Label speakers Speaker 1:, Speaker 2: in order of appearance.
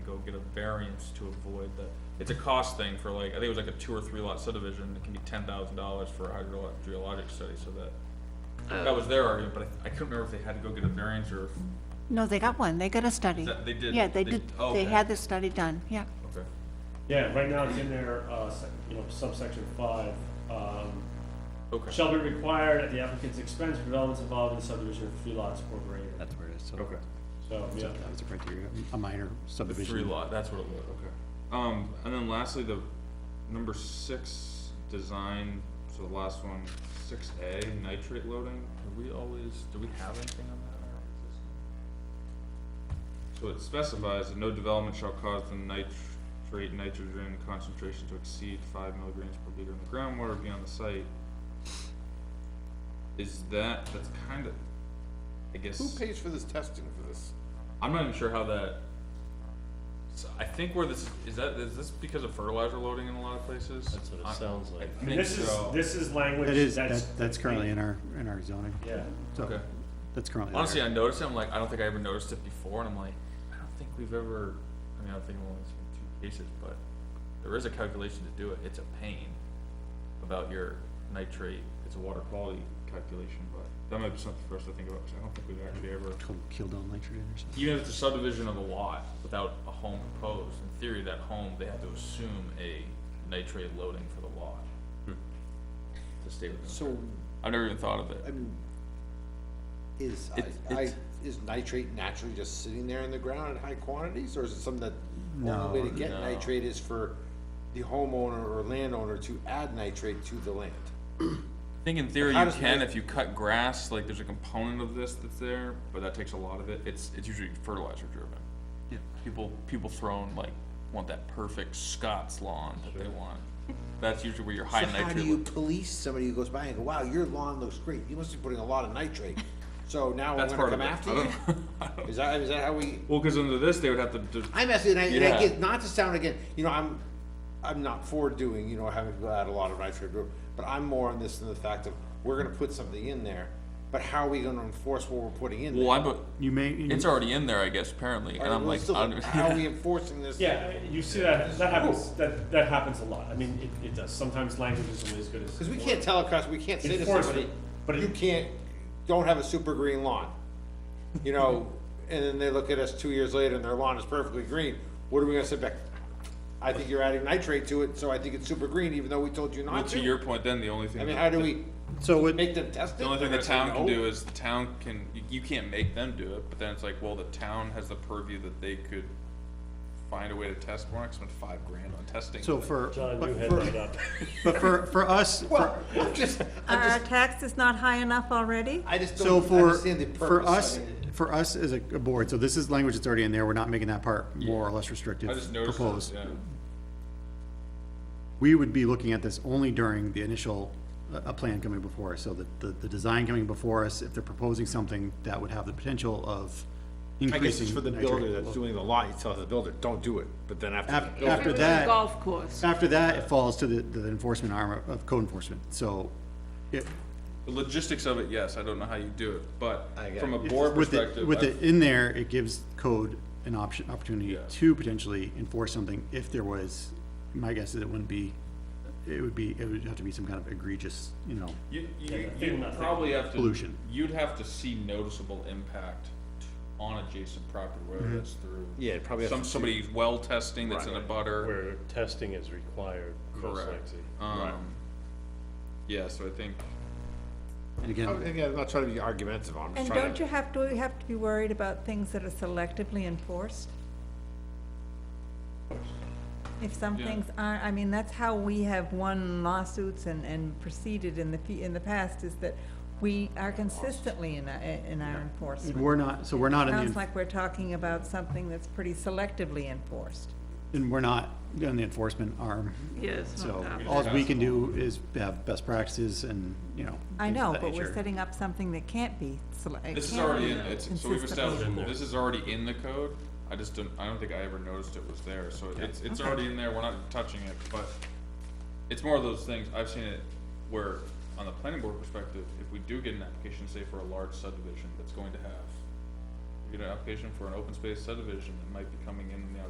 Speaker 1: go get a variance to avoid that. It's a cost thing for like, I think it was like a two or three lot subdivision, it can be ten thousand dollars for a hydrogeologic study, so that. That was their argument, but I I couldn't remember if they had to go get a variance or, if-
Speaker 2: No, they got one, they got a study.
Speaker 1: Is that- they did-
Speaker 2: Yeah, they
Speaker 1: they-
Speaker 2: did,
Speaker 1: oh,
Speaker 2: they
Speaker 1: okay.
Speaker 2: had the study done, yeah.
Speaker 1: okay.
Speaker 3: Yeah, right now it's in there, uh, sec- you know, subsection five, um,
Speaker 1: Okay,
Speaker 3: shall be required at the applicant's expense for developments involved in subdivision of three lots or greater.
Speaker 4: That's where it is. So
Speaker 1: okay.
Speaker 3: So, yeah,
Speaker 4: That was a criteria, a minor
Speaker 1: The
Speaker 4: subdivision.
Speaker 1: three lot, that's what it was, okay. Um, and then lastly, the number six, design, so the last one, six A, nitrate loading, do we always, do we have anything on that? in our existing? So it specifies that no development shall cause the nitrate nitrogen concentration to exceed five milligrams per liter in the groundwater beyond the site. Is that, that's kinda, I guess.
Speaker 5: Who pays for this testing for this?
Speaker 1: I'm not even sure how that. So I think where this is that is this because of fertilizer loading in a lot of places.
Speaker 6: That's what it
Speaker 1: I-
Speaker 6: sounds like.
Speaker 1: I
Speaker 3: I mean,
Speaker 1: think
Speaker 3: this is,
Speaker 1: so.
Speaker 3: this is language
Speaker 4: That
Speaker 3: that's.
Speaker 4: is, that- that's currently in our, in our zoning.
Speaker 3: Yeah,
Speaker 4: So,
Speaker 1: Okay.
Speaker 4: That's currently there.
Speaker 1: Honestly, I noticed it. I'm like, I don't think I ever noticed it before, and I'm like, I don't think we've ever. I mean, I don't think we've only seen two cases, but there is a calculation to do it. It's a pain about your nitrate. It's a water quality calculation, but that might be something for us to think about because I don't think we've actually ever.
Speaker 4: Killed- Killed on nitrogen or something.
Speaker 1: even if it's a subdivision of a lot without a home proposed, in theory, that home, they have to assume a nitrate loading for the lot. To stay within.
Speaker 5: So,
Speaker 1: I've never even thought of
Speaker 5: I
Speaker 1: it.
Speaker 5: mean, is,
Speaker 1: It-
Speaker 5: I, I,
Speaker 1: it's-
Speaker 5: is nitrate naturally just sitting there in the ground in high quantities, or is it something that
Speaker 4: No,
Speaker 5: only way to get
Speaker 1: no.
Speaker 5: nitrate is for the homeowner or landowner to add nitrate to the land?
Speaker 1: I think in theory
Speaker 5: How
Speaker 1: you
Speaker 5: does
Speaker 1: can,
Speaker 5: nit-
Speaker 1: if you cut grass, like there's a component of this that's there, but that takes a lot of it. It's, it's usually fertilizer driven.
Speaker 4: Yeah.
Speaker 1: People, people throwing like, want that perfect Scots lawn that they want. That's usually where your high
Speaker 5: So how do you
Speaker 1: nitrate.
Speaker 5: police somebody who goes by and go, wow, your lawn looks great, you must be putting a lot of nitrate, so now we're
Speaker 1: That's
Speaker 5: gonna
Speaker 1: part of
Speaker 5: come
Speaker 1: it.
Speaker 5: after
Speaker 1: I
Speaker 5: you?
Speaker 1: don't- I don't-
Speaker 5: Is that, is that how we,
Speaker 1: Well, cause under this, they would have to, do-
Speaker 5: I'm asking, and I, and
Speaker 1: Yeah.
Speaker 5: I get, not to sound again, you know, I'm, I'm not for doing, you know, having to add a lot of nitrate group, but I'm more on this than the fact of, we're gonna put something in there, but how are we gonna enforce what we're putting in there?
Speaker 1: well, I, but
Speaker 4: You may, you-
Speaker 1: it's already in there, I guess, apparently,
Speaker 5: All
Speaker 1: and
Speaker 5: right,
Speaker 1: I'm
Speaker 5: well,
Speaker 1: like,
Speaker 5: still,
Speaker 1: I don't-
Speaker 5: How are we enforcing this?
Speaker 3: yeah, you see that, that happens, that, that happens a lot. I mean, it, it does. Sometimes language isn't always good as.
Speaker 5: Cause we can't tell a customer, we can't say to somebody,
Speaker 3: Enforcement, but it-
Speaker 5: you can't, don't have a super green lawn. You know, and then they look at us two years later and their lawn is perfectly green, what are we gonna sit back? I think you're adding nitrate to it, so I think it's super green, even though we told you
Speaker 1: Well,
Speaker 5: not
Speaker 1: to your point, then the only thing.
Speaker 5: I mean,
Speaker 1: that-
Speaker 5: how do we
Speaker 4: so what,
Speaker 5: make them test it?
Speaker 1: The only thing the
Speaker 5: They're gonna
Speaker 1: town
Speaker 5: say
Speaker 1: can
Speaker 5: no?
Speaker 1: do is the town can, you, you can't make them do it, but then it's like, well, the town has the purview that they could find a way to test more, I spent five grand on testing.
Speaker 4: so for,
Speaker 3: John, you
Speaker 4: but
Speaker 3: head
Speaker 4: for,
Speaker 3: that up.
Speaker 4: but for, for us, for-
Speaker 5: Well, I'm just, I'm
Speaker 7: Our
Speaker 5: just,
Speaker 7: tax is not high enough already?
Speaker 5: I just
Speaker 4: so
Speaker 5: don't
Speaker 4: for,
Speaker 5: understand the
Speaker 4: for
Speaker 5: purpose
Speaker 4: us,
Speaker 5: of it.
Speaker 4: for us as a a board, so this is language that's already in there. We're not making that part more or less restrictive
Speaker 1: I just noticed, this,
Speaker 4: proposed.
Speaker 1: yeah,
Speaker 4: we would be looking at this only during the initial, uh, a plan coming before us, so that the, the design coming before us, if they're proposing something that would have the potential of
Speaker 5: I
Speaker 4: increasing.
Speaker 5: guess it's for the
Speaker 4: nitrate
Speaker 5: builder
Speaker 4: level.
Speaker 5: that's doing the lot, you tell the builder, don't do it, but then after.
Speaker 4: Af-
Speaker 5: the builder-
Speaker 4: After that,
Speaker 7: Golf course.
Speaker 4: after that, it falls to the, the enforcement arm of- of code enforcement, so it,
Speaker 1: the logistics of it, yes, I don't know how you do it, but
Speaker 5: I get
Speaker 1: from a
Speaker 5: it.
Speaker 1: board
Speaker 4: with it,
Speaker 1: perspective,
Speaker 4: with it
Speaker 1: I-
Speaker 4: in there, it gives code an option, opportunity
Speaker 1: Yeah.
Speaker 4: to potentially enforce something if there was, my guess is it wouldn't be, it would be, it would have to be some kind of egregious, you know,
Speaker 1: you,
Speaker 3: Yeah,
Speaker 1: you,
Speaker 3: they're
Speaker 1: you
Speaker 3: nothing.
Speaker 1: probably have to.
Speaker 4: Pollution.
Speaker 1: You'd have to see noticeable impact on adjacent property, whether that's through.
Speaker 5: Yeah, it probably has
Speaker 1: Some,
Speaker 5: to do-
Speaker 1: somebody's well testing that's in a
Speaker 5: Right.
Speaker 1: butter.
Speaker 6: Where testing is required, most
Speaker 1: Correct.
Speaker 6: likely.
Speaker 1: Um, yeah, so I think,
Speaker 4: and
Speaker 5: I'm-
Speaker 4: again,
Speaker 5: Again, I'm not trying to be argumentative, I'm just
Speaker 7: And
Speaker 5: trying to.
Speaker 7: don't you have to, you have to be worried about things that are selectively enforced? If some
Speaker 1: Yeah.
Speaker 7: things aren't, I mean, that's how we have won lawsuits and, and proceeded in the, fe- in the past, is that we are consistently in, our- in our enforcement.
Speaker 4: we're not, so we're not in the.
Speaker 7: Sounds like we're talking about something that's pretty selectively enforced.
Speaker 4: And we're not on the enforcement arm. Yes. So all we can do is have best practices and, you know.
Speaker 7: I
Speaker 4: things of
Speaker 7: know,
Speaker 4: that
Speaker 7: but we're
Speaker 4: nature.
Speaker 7: setting up something that can't be sele- it
Speaker 1: this is
Speaker 7: can't
Speaker 1: already in,
Speaker 7: be
Speaker 1: it's, so we've
Speaker 7: consistently-
Speaker 1: established, this is already in the code, I just didn't, I don't think I ever noticed it was there, so it's, it's
Speaker 7: Okay.
Speaker 1: already in there, we're not touching it, but it's more of those things, I've seen it where, on the planning board perspective, if we do get an application, say for a large subdivision, that's going to have, you get an application for an open space subdivision, that might be coming in in the